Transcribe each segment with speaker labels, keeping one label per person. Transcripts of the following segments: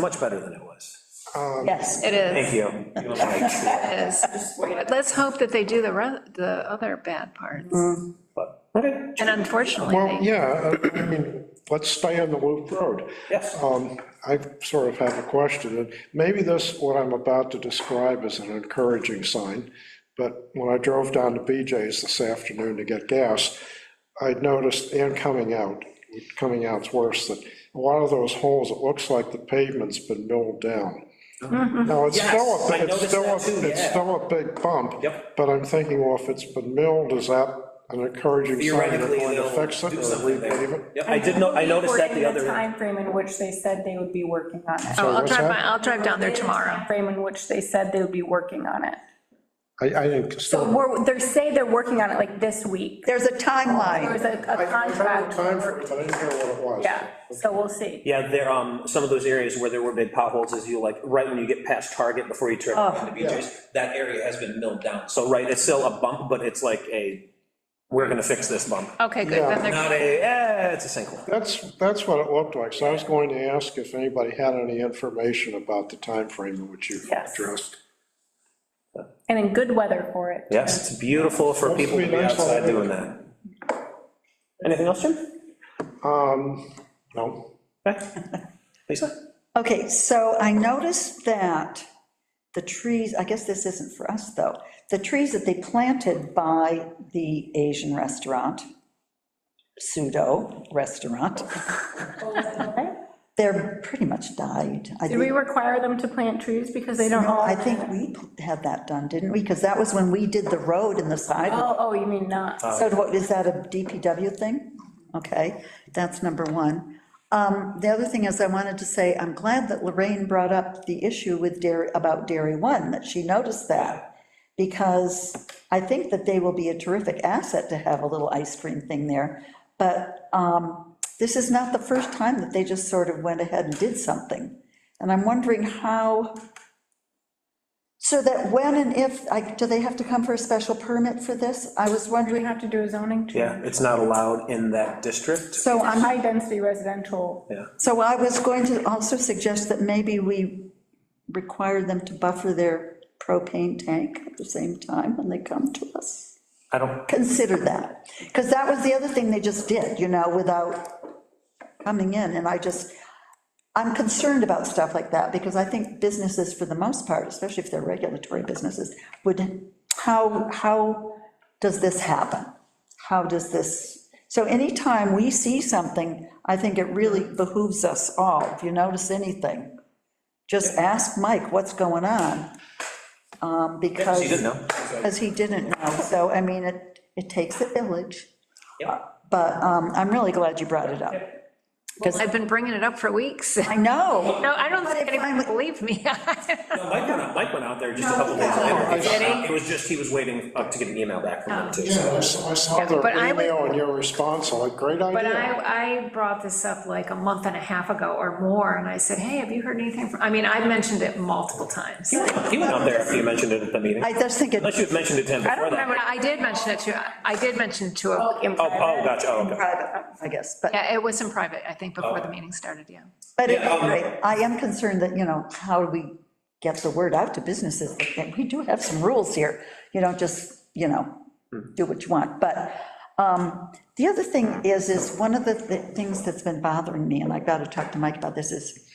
Speaker 1: Much better than it was.
Speaker 2: Yes,
Speaker 3: It is,
Speaker 1: Thank you. Mike.
Speaker 3: it is. But let's hope that they do the, re- the other bad parts.
Speaker 1: Mm. But, Okay,
Speaker 3: And unfortunately,
Speaker 4: Well,
Speaker 3: they-
Speaker 4: yeah, I I mean, let's stay on the Loop Road.
Speaker 1: yes,
Speaker 4: Um, I sort of have a question, and maybe this, what I'm about to describe is an encouraging sign, but when I drove down to BJ's this afternoon to get gas, I noticed, and coming out, coming out's worse, that a lot of those holes, it looks like the pavement's been milled down.
Speaker 5: Mm-hmm.
Speaker 4: Now, it's still,
Speaker 1: Yes, I
Speaker 4: a it's
Speaker 1: noticed
Speaker 4: still, a
Speaker 1: that too,
Speaker 4: it's
Speaker 1: yeah.
Speaker 4: still a big bump.
Speaker 1: Yep.
Speaker 4: But I'm thinking, well, if it's been milled, is that an encouraging sign that
Speaker 1: theoretically,
Speaker 4: going to
Speaker 1: they'll
Speaker 4: fix it
Speaker 1: do
Speaker 4: or
Speaker 1: something
Speaker 4: repave it?
Speaker 1: there. Yep, I did know, I noticed that the other,
Speaker 5: We're
Speaker 1: night.
Speaker 5: in the timeframe in which they said they would be working on it.
Speaker 3: oh, I'll
Speaker 4: what's
Speaker 3: drive,
Speaker 4: that?
Speaker 3: by- I'll drive down there tomorrow.
Speaker 5: Frame in which they said they would be working on it.
Speaker 4: I, I think still.
Speaker 5: So we're, they say they're working on it like this week.
Speaker 2: there's a
Speaker 5: There
Speaker 2: timeline.
Speaker 5: was a
Speaker 4: I
Speaker 5: a
Speaker 4: I found the time for
Speaker 5: contract,
Speaker 4: it, but I didn't hear what it was.
Speaker 5: yeah, so we'll see.
Speaker 1: yeah, there, um, some of those areas where there were big potholes is you like, right when you get past Target before you turn into BJ's, that area has been milled down. So, right, it's still a bump, but it's like a, we're gonna fix this bump.
Speaker 3: Okay, good, then they're,
Speaker 1: Not a, eh, it's a sinkhole.
Speaker 4: That's, that's what it looked like, so I was going to ask if anybody had any information about the timeframe in which you
Speaker 5: Yes.
Speaker 4: addressed.
Speaker 5: And in good weather for it.
Speaker 1: Yes, it's beautiful for people to be
Speaker 4: Hopefully, nice
Speaker 1: outside
Speaker 4: weather.
Speaker 1: doing that. Anything else, Jim?
Speaker 4: Um, no,
Speaker 1: Lisa?
Speaker 2: Okay, so I noticed that the trees, I guess this isn't for us, though, the trees that they planted by the Asian restaurant, pseudo restaurant, they're pretty much died. I
Speaker 5: Did we
Speaker 2: think-
Speaker 5: require them to plant trees because they don't all?
Speaker 2: I think we had that done, didn't we? Because that was when we did the road and the sidewalk.
Speaker 5: Oh, oh, you mean
Speaker 1: Uh,
Speaker 5: not?
Speaker 2: So what, is that a DPW thing? Okay, that's number one. Um, The other thing is, I wanted to say, I'm glad that Lorraine brought up the issue with Dairy, about Dairy One, that she noticed that, because I think that they will be a terrific asset to have a little ice cream thing there. But um, this is not the first time that they just sort of went ahead and did something. And I'm wondering how, so that when and if, I- do they have to come for a special permit for this? I was
Speaker 5: Do we
Speaker 2: wondering,
Speaker 5: have to do a zoning change?
Speaker 1: Yeah, it's not allowed in that district.
Speaker 2: so I'm
Speaker 5: High-density residential.
Speaker 1: Yeah.
Speaker 2: So I was going to also suggest that maybe we require them to buffer their propane tank at the same time when they come to us.
Speaker 1: I don't,
Speaker 2: Consider that, because that was the other thing they just did, you know, without coming in, and I just, I'm concerned about stuff like that, because I think businesses, for the most part, especially if they're regulatory businesses, would, how, how does this happen? How does this, so anytime we see something, I think it really behooves us all, if you notice anything, just ask Mike what's going on, um, because.
Speaker 1: she didn't know.
Speaker 2: Because he didn't know, so, I mean, it, it takes a village,
Speaker 1: Yeah.
Speaker 2: but um, I'm really glad you brought it up.
Speaker 3: I've been bringing it up for weeks.
Speaker 2: I know,
Speaker 3: No, I don't think anyone would believe me.
Speaker 1: No, Mike went out, Mike went out there just a couple days later. He found out- It was just, he was waiting up to get an email back from them too.
Speaker 4: yeah, I saw I saw their
Speaker 3: but I would-
Speaker 4: email and your response, I'm like, great
Speaker 3: But
Speaker 4: idea.
Speaker 3: I, I brought this up like a month and a half ago or more, and I said, hey, have you heard anything from, I mean, I've mentioned it multiple times.
Speaker 1: He went out there after you mentioned it at the meeting.
Speaker 2: I just think it,
Speaker 1: Unless you had mentioned it to him
Speaker 3: I
Speaker 1: before
Speaker 3: don't remember,
Speaker 1: that.
Speaker 3: I did mention it to, I did mention it to, a-
Speaker 1: Oh, oh, gotcha, oh, okay.
Speaker 2: private, I guess, but,
Speaker 3: yeah, it was in private, I think, before the
Speaker 1: Oh.
Speaker 3: meeting started, yeah.
Speaker 2: but at
Speaker 1: Yeah,
Speaker 2: any
Speaker 1: um,
Speaker 2: rate, I am concerned that, you know, how do we get the word out to businesses? And We do have some rules here, you don't just, you know,
Speaker 1: Hmm.
Speaker 2: do what you want, but um, the other thing is, is one of the th- things that's been bothering me, and I've got to talk to Mike about this, is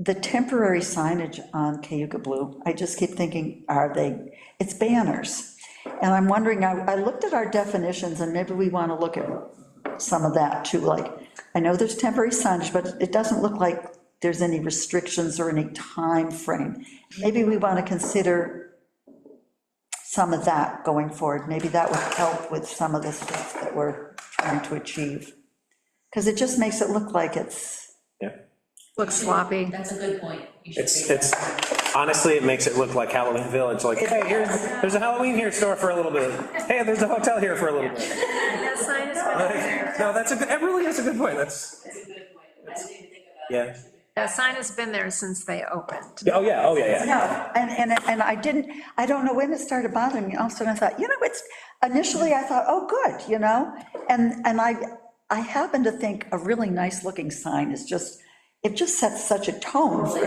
Speaker 2: the temporary signage on Cayuga Blue, I just keep thinking, are they, it's banners. And I'm wondering, I, I looked at our definitions, and maybe we want to look at some of that too, like, I know there's temporary signage, but it doesn't look like there's any restrictions or any time frame. Maybe we want to consider some of that going forward, maybe that would help with some of the stuff that we're trying to achieve. Because it just makes it look like it's,
Speaker 1: Yeah.
Speaker 3: Looks sloppy.
Speaker 6: That's a good point. You should
Speaker 1: It's,
Speaker 6: figure
Speaker 1: it's, honestly, it makes it look like Halloween Village, like, hey, here's, there's a Halloween here store for a little bit. Hey, there's a hotel here for a little bit.
Speaker 3: That sign is-
Speaker 1: Like, No, that's a, good- that really is a good point, that's,
Speaker 6: That's a good point. I didn't even think about it.
Speaker 1: yeah.
Speaker 3: That sign has been there since they opened.
Speaker 1: Yeah, Oh, yeah, oh, yeah, yeah.
Speaker 2: No, and, and, and I didn't, I don't know when it started bothering me, all of a sudden I thought, you know, it's, initially I thought, oh, good, you know? And, and I, I happen to think a really nice-looking sign is just, it just sets such a tone for